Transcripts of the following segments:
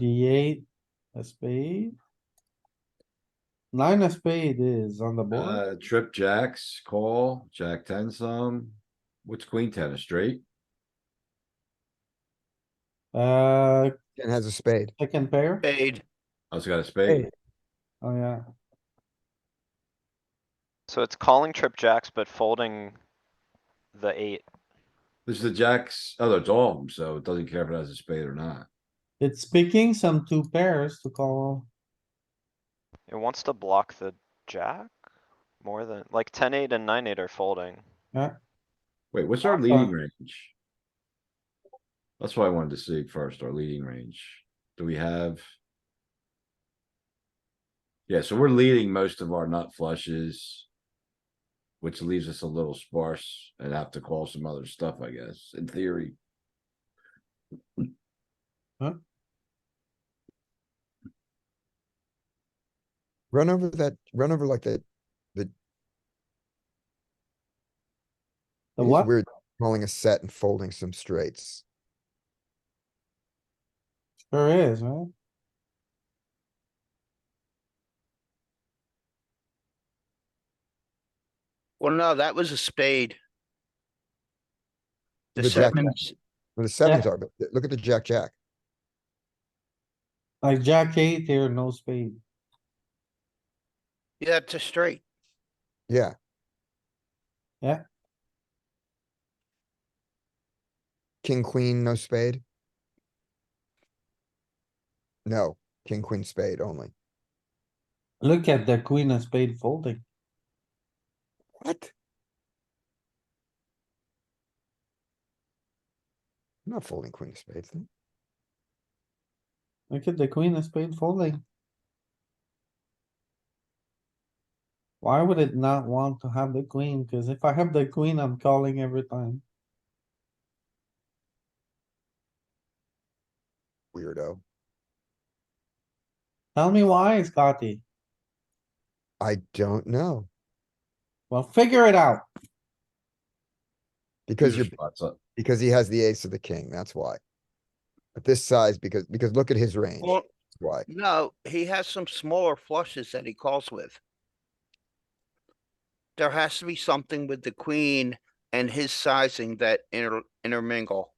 The eight, a spade. Nine of spade is on the board. Uh, trip jacks, call, jack ten some. What's queen ten, a straight? Uh, and has a spade. second pair. Spade. I was gonna spade. Oh, yeah. So it's calling trip jacks, but folding the eight. This is the jacks, oh, it's all of them, so it doesn't care if it has a spade or not. It's picking some two pairs to call. It wants to block the jack more than, like ten eight and nine eight are folding. Wait, what's our Awesome. leading range? That's why I wanted to see first, our leading range. Do we have? Yeah, so we're leading most of our nut flushes. Which leaves us a little sparse and have to call some other stuff, I guess, in theory. Run over that, run over like that. The it's what? Weird calling a set and folding some straights. Sure is, right? Well, no, that was a spade. The The jack- sevens, Well, The sevens are, but look at the jack, jack. Like jack eight here, no spade. yeah, it's a straight. Yeah, Yeah, king, queen, no spade. No, king, queen, spade only. look at the queen of spade folding. What? I'm not folding queen of spades. then. Look at the queen of spade folding. Why would it not want to have the queen? Cuz if I have the queen, I'm calling every time. Weirdo. Tell me why, Scotty. I don't know, Well, figure it out. because These are you're spots up. Because he has the ace of the king, that's why. But this size, because, because look at his range, Well, that's why. no, he has some smaller flushes that he calls with. There has to be something with the queen and his sizing that inter- intermingle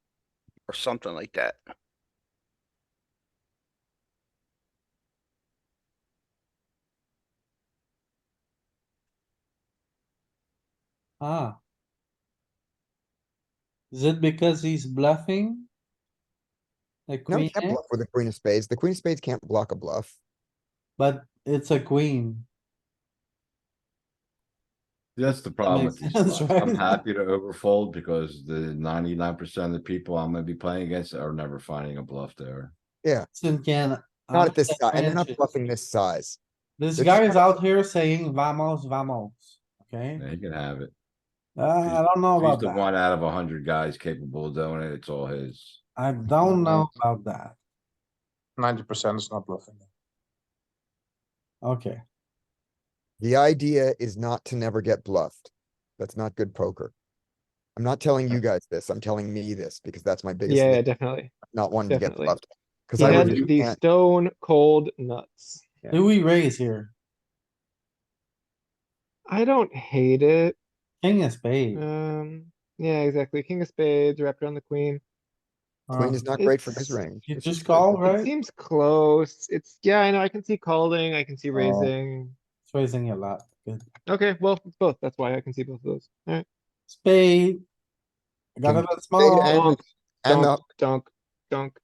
or something like that. Ah. Is it because he's bluffing? A No, queen, he can't X? bluff with the queen of spades. The queen of spades can't block a bluff. but it's a queen. That's the problem makes with these sense, spots. I'm right? happy to overfold because the ninety-nine percent of the people I'm gonna be playing against are never finding a bluff there. Sin can. Not at this size, and they're not advantage. bluffing this size. This They're guy just- is out here saying vamos, vamos, okay? Yeah, he can have it. Uh, I don't know He's about the that. one out of a hundred guys capable of doing it. It's all his. I don't know about that. Ninety percent is not bluffing. Okay, The idea is not to never get bluffed. That's not good poker. I'm not telling you guys this, I'm telling me this, because that's my biggest, Yeah, thing, definitely. not wanting to get definitely. bluffed. Cause He I had really the can't- stone cold nuts. do we raise here? I don't hate it. King of spade. Um, yeah, exactly. King of spades wrapped around the queen. Queen Um, is not great for his It's- range. You It's just good for- call, It right? seems close. It's, yeah, I know. I can see calling. I can Oh. see raising. It's raising a lot. Good. Okay, well, it's both. That's why I can see both of those. Alright. Spade. I Got King it at Spade small. and- Dunk, And, uh, dunk, the- dunk, dunk.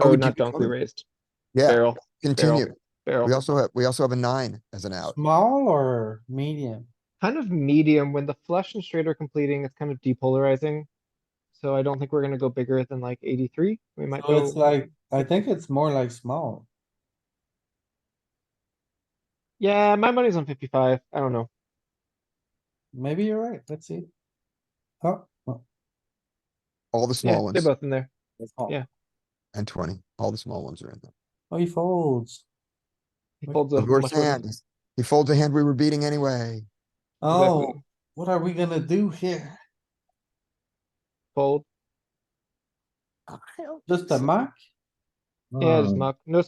Oh, Oh, we not keep it dunk, we coming. raised. yeah, Barrel, continue. We barrel. also have, we also have a nine as an out. Small or medium? Kind of medium. When the flush and straight are completing, it's kind of depolarizing. So I don't think we're gonna go bigger than like eighty-three. We might So go. it's like, I think it's more like small. Yeah, my money's on fifty-five. I don't know. Maybe you're right. Let's see. Oh, oh, All the Yeah, small they're ones both in there. it's small. Yeah. and twenty, all the small ones are in there. Oh, he folds. He Like, folds The up worst much worse. hand. He folds a hand we were beating anyway. Oh, Exactly. what are we gonna do here? Fold. Just a muck? Yeah, just Um, muck. No